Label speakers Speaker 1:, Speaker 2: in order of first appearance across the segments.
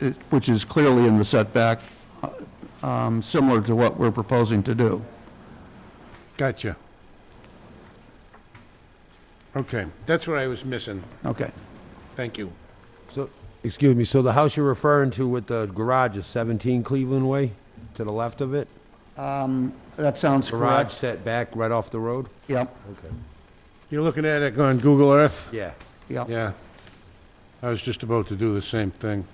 Speaker 1: it- which is clearly in the setback, um, similar to what we're proposing to do.
Speaker 2: Gotcha. Okay, that's what I was missing.
Speaker 1: Okay.
Speaker 2: Thank you.
Speaker 3: So, excuse me, so the house you're referring to with the garage is 17 Cleveland Way, to the left of it?
Speaker 1: That sounds
Speaker 3: Garage
Speaker 1: correct.
Speaker 3: set back right off the road?
Speaker 1: Yep,
Speaker 3: Okay.
Speaker 2: You're looking at it on Google Earth?
Speaker 3: Yeah.
Speaker 1: yep.
Speaker 2: Yeah. I was just about to do the same thing.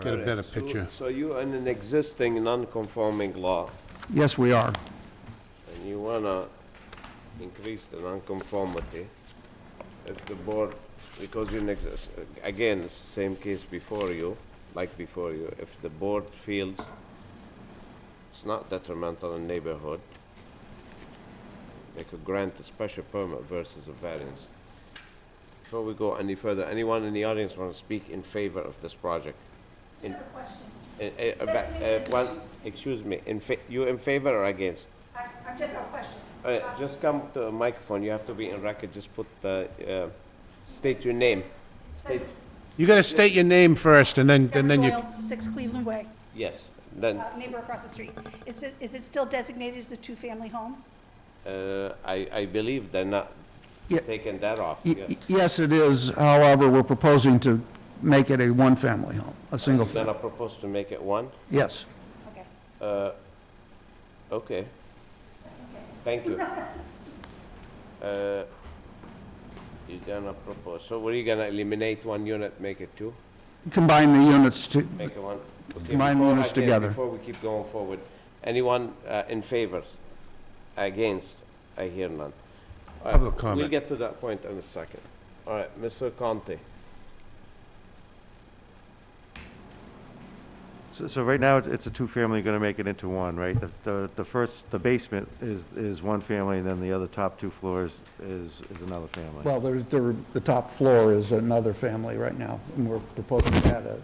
Speaker 2: Get a better picture.
Speaker 4: So you're in an existing non-conforming law,
Speaker 1: Yes, we are.
Speaker 4: and you wanna increase the non-conformity. If the board, because you're in exist, again, it's the same case before you, like before you, if the board feels it's not detrimental in neighborhood, they could grant a special permit versus a variance. Before we go any further, anyone in the audience wanna speak in favor of this project? In- Uh, uh, but, uh, one, excuse me, in fa- you in favor or against?
Speaker 5: I, I just have a question.
Speaker 4: Uh, just come to the microphone, you have to be in record, just put the, uh, state your name. State,
Speaker 2: You gotta state your name first, and then, and
Speaker 5: Deborah
Speaker 2: then you...
Speaker 5: Doyle, 6 Cleveland Way,
Speaker 4: yes, then,
Speaker 5: uh, neighbor across the street. Is it, is it still designated as a two-family home?
Speaker 4: uh, I, I believe they're not
Speaker 1: Yeah.
Speaker 4: taking that off,
Speaker 1: Y-
Speaker 4: yes.
Speaker 1: y- Yes, it is. However, we're proposing to make it a one-family home, a single,
Speaker 4: Then I
Speaker 1: family.
Speaker 4: propose to make it one,
Speaker 1: yes.
Speaker 5: Okay.
Speaker 4: okay. Thank you. Uh, You're gonna propose, so what are you gonna eliminate one unit, make it two?
Speaker 1: Combine the units to,
Speaker 4: Make it one. Okay,
Speaker 1: Combine
Speaker 4: before-
Speaker 1: units
Speaker 4: okay,
Speaker 1: together.
Speaker 4: Before we keep going forward, anyone uh, in favor? Against? I hear none. All right,
Speaker 2: Public comment.
Speaker 4: We'll get to that point in a second. All right, Mr. Conte.
Speaker 6: So, so right now, it's a two-family, gonna make it into one, right? The- The, the first, the basement is, is one family, and then the other top two floors is, is another family.
Speaker 1: well, there's, there- the top floor is another family right now, and we're proposing to add a,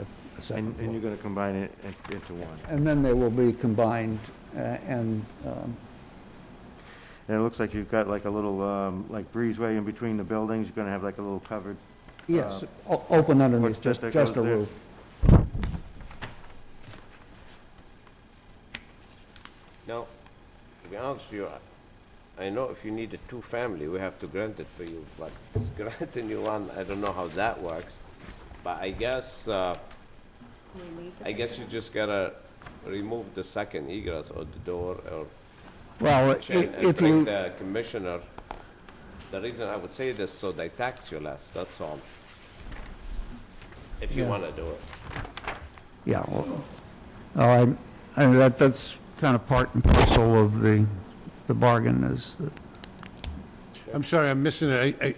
Speaker 1: a- a second
Speaker 6: And, and
Speaker 1: floor.
Speaker 6: you're gonna combine it in- into one.
Speaker 1: And then they will be combined, uh, and um,
Speaker 6: And it looks like you've got like a little, um, like breezeway in between the buildings, you're gonna have like a little covered.
Speaker 1: Yes, o- open underneath,
Speaker 6: footstep
Speaker 1: just,
Speaker 6: Uh, that
Speaker 1: just a
Speaker 6: goes there.
Speaker 1: roof.
Speaker 4: Now, to be honest with you, I- I know if you need a two-family, we have to grant it for you, but it's granting you one, I don't know how that works. But I guess, uh, I guess you just gotta remove the second egress or the door or
Speaker 1: Well, i-
Speaker 4: And and
Speaker 1: if
Speaker 4: bring
Speaker 1: you,
Speaker 4: the commissioner, the reason I would say this, so they tax you less, that's all. If you
Speaker 1: Yeah.
Speaker 4: wanna do it.
Speaker 1: yeah, well, oh, I- and that, that's kind of part and parcel of the, the bargain is, that-
Speaker 2: I'm sorry, I'm missing it. I- I-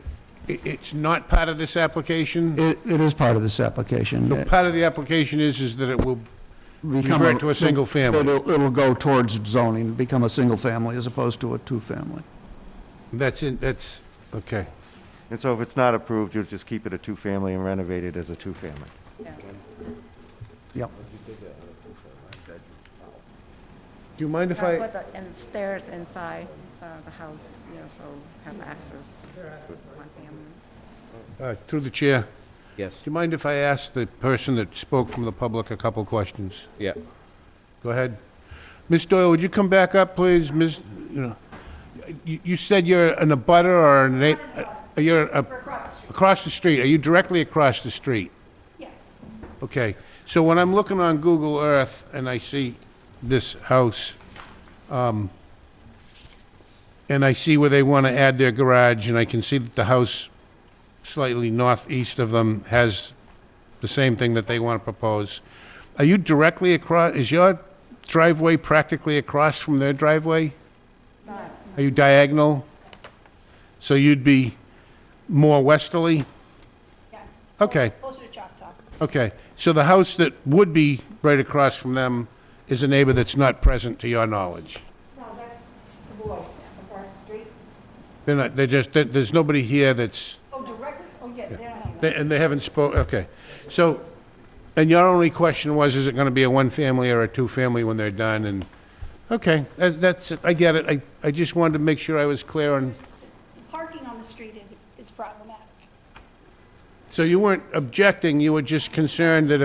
Speaker 2: i- It's not part of this application?
Speaker 1: it, it is part of this application.
Speaker 2: So part of the application is, is that it will
Speaker 1: Become
Speaker 2: revert to a single family.
Speaker 1: It'll, it'll go towards zoning, become a single family as opposed to a two-family.
Speaker 2: That's in, that's, okay.
Speaker 6: And so if it's not approved, you'll just keep it a two-family and renovate it as a two-family.
Speaker 1: Yep.
Speaker 2: Do you mind if
Speaker 7: I
Speaker 2: I,
Speaker 7: put the in- stairs inside uh, the house, you know, so have access to my family.
Speaker 2: uh, through the chair, do
Speaker 4: Yes.
Speaker 2: you mind if I ask the person that spoke from the public a couple questions?
Speaker 4: Yeah.
Speaker 2: Go ahead. Ms. Doyle, would you come back up, please? Ms., you know, you, you said you're an abutter or an, a- you're a-
Speaker 5: We're across the street,
Speaker 2: across the street. Are you directly across the street?
Speaker 5: yes.
Speaker 2: Okay, so when I'm looking on Google Earth and I see this house, um, and I see where they want to add their garage, and I can see that the house slightly northeast of them has the same thing that they want to propose. Are you directly across, is your driveway practically across from their driveway? Are you diagonal? So you'd be more westerly?
Speaker 5: Yeah.
Speaker 2: Okay.
Speaker 5: Closer to Choctaw.
Speaker 2: Okay, so the house that would be right across from them is a neighbor that's not present to your knowledge?
Speaker 7: No, that's the boys across the street.
Speaker 2: They're not, they're just, there- there's nobody here that's,
Speaker 5: Oh, directly, oh, yeah, they're not
Speaker 2: they-
Speaker 5: here.
Speaker 2: and they haven't spoke, okay. So, and your only question was, is it gonna be a one-family or a two-family when they're done, and, okay, that- that's, I get it, I, I just wanted to make sure I was clear on,
Speaker 5: Parking on the street is, is problematic.
Speaker 2: So you weren't objecting, you were just concerned that if